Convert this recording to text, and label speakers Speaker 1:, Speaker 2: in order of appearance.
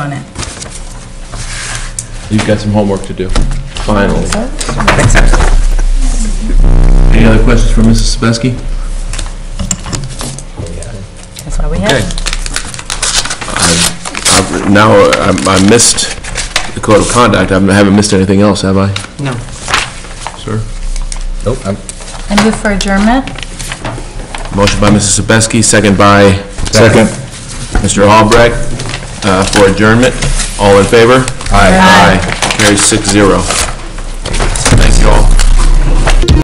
Speaker 1: You've got some homework to do, finally.
Speaker 2: Thanks, sir.
Speaker 1: Any other questions for Mrs. Sebeski?
Speaker 2: That's why we have
Speaker 3: Okay.
Speaker 2: him.
Speaker 1: I've- Now, I'm- I missed the code of conduct, I haven't missed anything else, have I?
Speaker 4: No.
Speaker 1: Sir?
Speaker 3: Nope, I'm,
Speaker 2: I move for adjournment.
Speaker 1: Motion by Mrs. Sebeski, second by... Second. Mr. Albrecht, uh, for adjournment. All in favor?
Speaker 2: Aye.
Speaker 1: Carries six zero.